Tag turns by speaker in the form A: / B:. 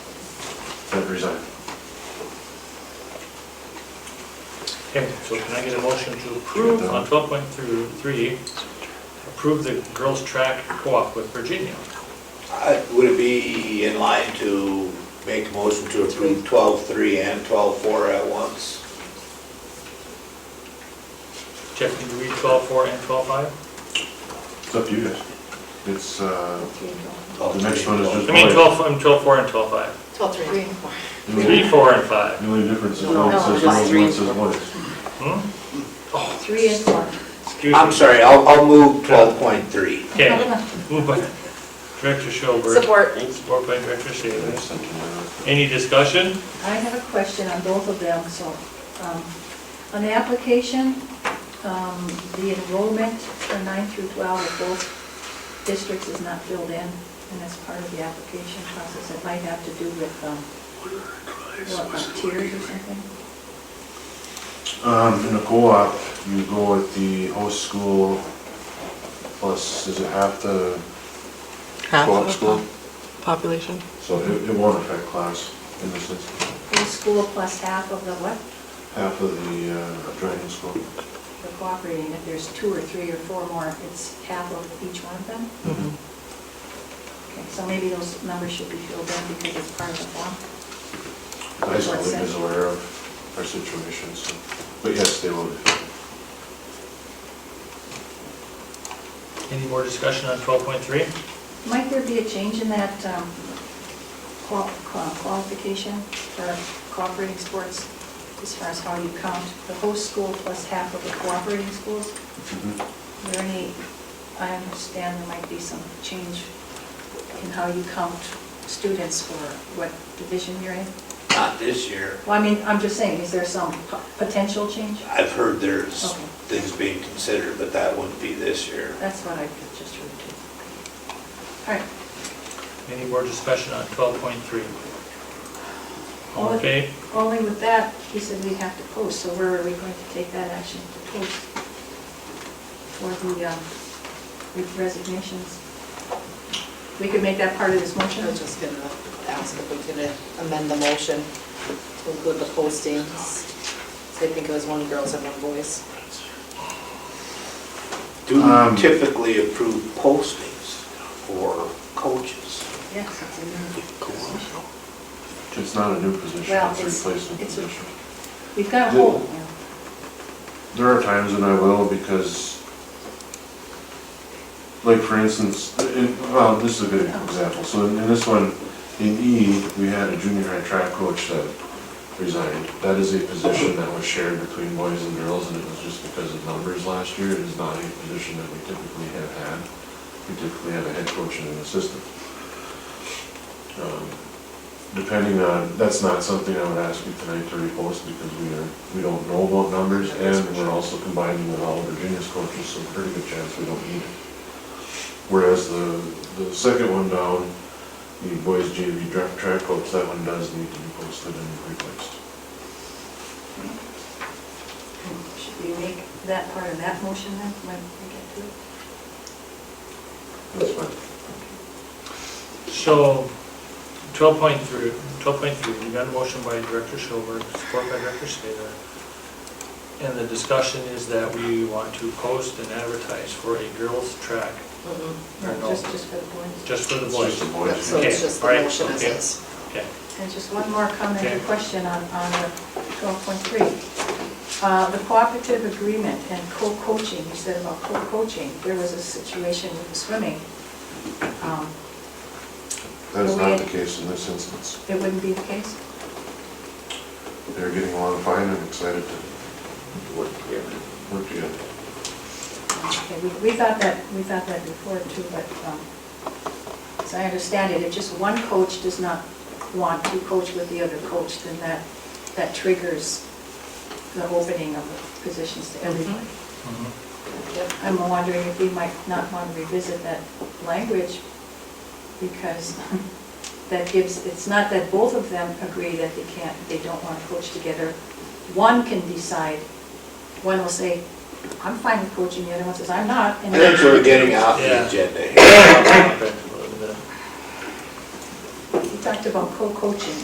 A: have resigned.
B: Okay, so can I get a motion to approve on twelve point three, three, approve the girls' track co-op with Virginia?
C: Uh, Would it be in line to make a motion to approve twelve-three and twelve-four at once?
B: Jeff, can you read twelve four and twelve five?
A: It's up to you guys. It's, uh,
C: The
A: next one is just-
B: I mean twelve, I'm twelve four and twelve five.
D: Twelve, three, and four.
A: the
B: Three,
A: only-
B: four, and five.
A: the only difference is
D: No,
A: one says
D: just
A: no,
D: three
A: one
D: and
A: says
D: four.
A: one.
B: Hmm?
D: Three and four.
B: Excuse me.
C: I'm sorry, I'll, I'll move twelve-point-three.
B: Okay, moved by Director Schober.
D: Support.
B: Support by Director Shaver. Any discussion?
E: I have a question on both of them, so, um, on the application, um, the enrollment for nine through 12 of both districts is not filled in, and that's part of the application process. It might have to do with, um, what, uh, tiers or something?
A: Um, in a co-op, you go with the host school plus, is it half the
F: Half
A: co-op
F: of
A: school?
F: the Population.
A: So it, it won't affect class in this instance,
E: Each school plus half of the what?
A: half of the, uh, driving school.
E: The cooperating, if there's two or three or four more, it's half of each one of them? Okay, so maybe those numbers should be filled in because it's part of the form.
A: The High school league is aware of our situation, so, but yes, they will.
B: Any more discussion on twelve point three?
E: Might there be a change in that um, qual- qual- qualification for cooperating sports as far as how you count the host school plus half of the cooperating schools?
A: Mhm.
E: Is there any, I understand there might be some change in how you count students for what division you're in?
C: Not this year.
E: Well, I mean, I'm just saying, is there some po- potential change?
C: I've heard there's
E: Okay.
C: things being considered, but that wouldn't be this year.
E: That's what I just heard too. All right,
B: Any more discussion on twelve point three? All
E: All
B: in
E: in-
B: favor?
E: Only with that, he said we'd have to post, so where are we going to take that action to post for the um, resignations? We could make that part of this
D: I
E: motion?
D: was just gonna ask if we could amend the motion to include the postings. So I think it was one girls and one boys.
C: Do
A: Um,
C: we typically approve postings for coaches?
E: Yes, it's in there.
A: It's not a new position,
E: Well,
A: it's a
E: it's-
A: replacement
E: it's a-
A: position.
E: We've got a hole.
A: There are times when I will because, like for instance, in, well, this is a good example. So in, in this one, in E, we had a junior high track coach that resigned. That is a position that was shared between boys and girls and it was just because of numbers last year. It is not a position that we typically have had. We typically have a head coach and an assistant. Um, Depending on, that's not something I would ask you tonight to repost because we are, we don't know about numbers and we're also combining with all of Virginia's coaches, so pretty good chance we don't need it. Whereas the, the second one down, the boys JV draft track coach, that one does need to be posted and replaced.
E: Should we make that part of that motion then, when we get to
A: That's
E: it?
A: fine.
B: So, 12.3, 12.3, you got a motion by Director Schober, support by Director Slater. And the discussion is that we want to post and advertise for a girls' track,
F: Mm-hmm.
B: Or no?
E: Or Just, just for the boys?
B: just for the
A: It's just the
B: boys.
A: boys.
D: So it's just the
B: Okay, all right,
D: motion as
B: okay.
D: is.
B: Okay,
E: And just one more comment
B: Okay.
E: and question on, on the 12.3. Uh, The cooperative agreement and co-coaching, you said about co-coaching, there was a situation with the swimming. Um,
A: That is not the case in this instance.
E: It wouldn't be the case?
A: They're getting along fine and excited to
C: Would be a
A: work together.
E: Okay, we, we thought that, we thought that before too, but, um, as I understand it, if just one coach does not want to coach with the other coach, then that, that triggers the opening of the positions to everybody.
D: Yep.
E: I'm wondering if we might not want to revisit that language, because that gives, it's not that both of them agree that they can't, they don't want to coach together. One can decide, one will say, I'm fine with coaching, the other one says, I'm not.
C: I
E: and
C: think we're getting off
B: Yeah.
C: the agenda here.
B: Back a little bit.
E: We talked about co-coaching,